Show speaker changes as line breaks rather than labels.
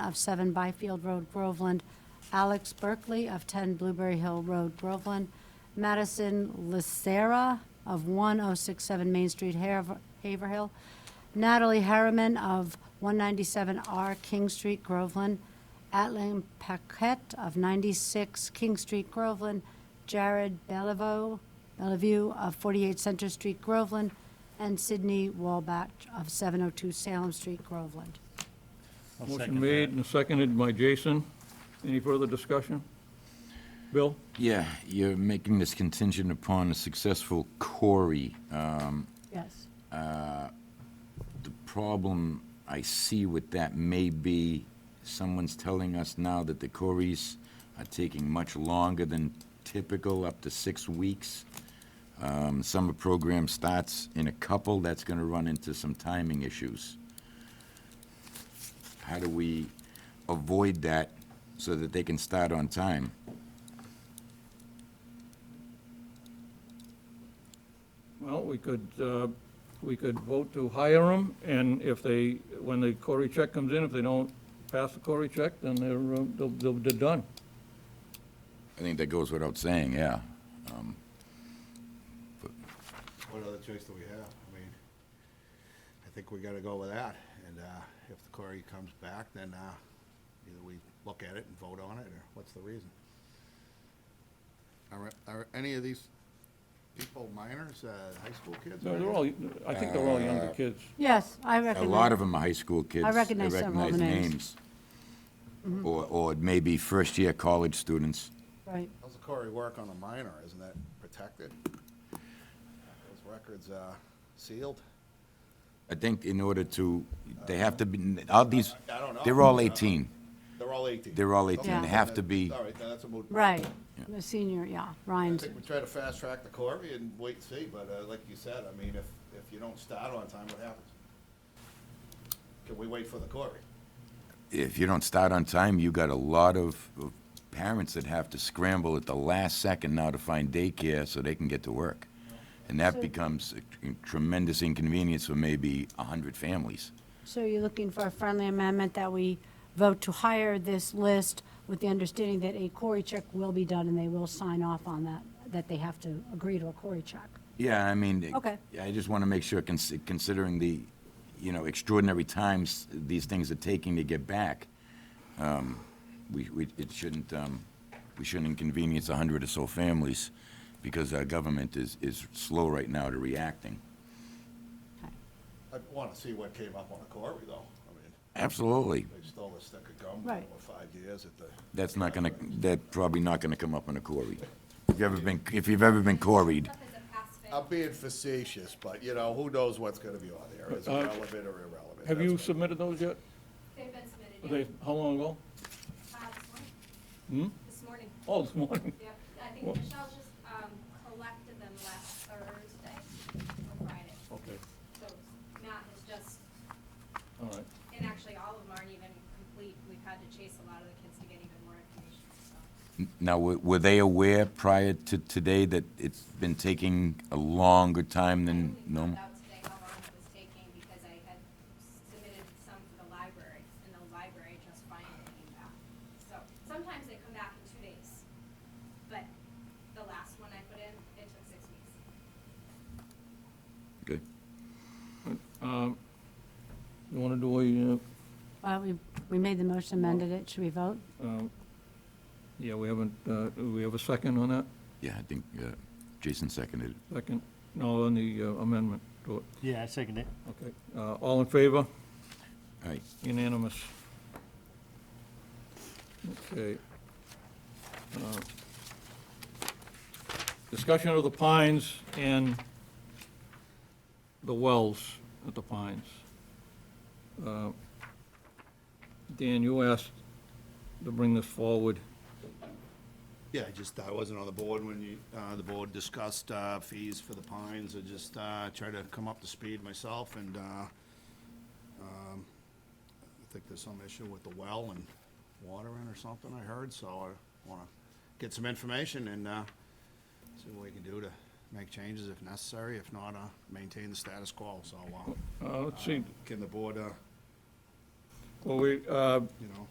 of 7 Byfield Road, Groveland, Alex Berkeley of 10 Blueberry Hill Road, Groveland, Madison Lucera of 1067 Main Street, Haver- Haverhill, Natalie Harriman of 197R King Street, Groveland, Atlan Paquette of 96 King Street, Groveland, Jared Bellevue, Bellevue of 48 Center Street, Groveland, and Sydney Walbach of 702 Salem Street, Groveland.
I'll
Motion
second
made
that.
and seconded by Jason. Any further discussion? Bill?
Yeah, you're making this contingent upon a successful Corey.
Yes.
The problem I see with that may be someone's telling us now that the Corys are taking much longer than typical, up to six weeks. Um, Summer program starts in a couple, that's going to run into some timing issues. How do we avoid that so that they can start on time?
Well, we could, uh, we could vote to hire them, and if they, when the Cory check comes in, if they don't pass the Cory check, then they're, uh, they'll- they'll- they're done.
I think that goes without saying, yeah.
What other choice do we have? I mean, I think we gotta go with that, and, uh, if the query comes back, then, uh, either we look at it and vote on it, or what's the reason? Are, are any of these people minors, uh, high school kids?
No, They're all, I think they're all younger kids.
Yes, I
A
recognize.
lot of them are high school kids.
recognize several of the names. Mm-hmm.
names. Or, or maybe first-year college students.
Right.
How's the query work on a minor? Isn't that protected? Those records, uh, sealed?
I think in order to, they have to be, all these,
I don't know.
they're all 18.
They're all eighteen.
They're all 18.
They
Okay,
have
then
to be-
that's- All right, then that's a moot. point.
Right. The senior, yeah,
I
Ryan's.
think we try to fast track the Corvi and wait and see, but uh, like you said, I mean, if, if you don't start on time, what happens? Can we wait for the Corvi?
If you don't start on time, you got a lot of of parents that have to scramble at the last second now to find daycare so they can get to work. And that becomes a tremendous inconvenience for maybe 100 families.
So you're looking for a friendly amendment that we vote to hire this list with the understanding that a Cory check will be done and they will sign off on that, that they have to agree to a Cory check.
Yeah, I mean. it-
Okay.
I just want to make sure, cons- considering the, you know, extraordinary times these things are taking to get back, um, we, we, it shouldn't, um, we shouldn't inconvenience a hundred or so families because our government is, is slow right now to reacting.
I want to see what came up on the Corvi, though. I mean,
Absolutely.
they stole a stick of gum
Right.
for five years at the,
That's not gonna, that's probably not gonna come up in a Corey. If you've ever been, if you've ever been Corey'd,
I'm being facetious, but you know, who knows what's going to be on there? Is it
Uh,
relevant or irrelevant?
Have you
That's what-
submitted those yet?
They've been submitted,
Are
yeah.
they, how long ago?
Uh, This morning. This morning,
Oh, this morning.
yep. I think
Well-
Michelle just um, collected them last Thursday or Friday.
Okay,
So Matt has just,
all right.
and actually all of them aren't even complete. We've had to chase a lot of the kids to get even more information, so.
now, were were they aware prior to today that it's been taking a longer time
I
than
only found
normal?
out today how long it was taking because I had submitted some to the library and the library just finally came back. So sometimes they come back in two days, but the last one I put in, it took six weeks.
Good.
Um, You want to do uh,
Well, we, we made the motion, amended it. Should we vote?
a, uh, um, yeah, we haven't, uh, do we have a second on that?
Yeah, I think uh, Jason seconded it.
Second? No, on the uh, amendment to it.
Yeah, I second it.
Okay. Uh, All in favor?
All right,
Unanimous. Okay. Uh, Discussion of the pines and the wells at the pines. Uh, Dan, you asked to bring this forward.
Yeah, I just, I wasn't on the board when you, uh, the board discussed, uh, fees for the pines, I just, uh, tried to come up to speed myself and, uh, um, I think there's some issue with the well and water in or something I heard, so I wanna get some information and, uh, see what we can do to make changes if necessary, if not, uh, maintain the status quo, so, uh,
Uh, Let's see,
can the board, uh,
well, we, uh,
you know,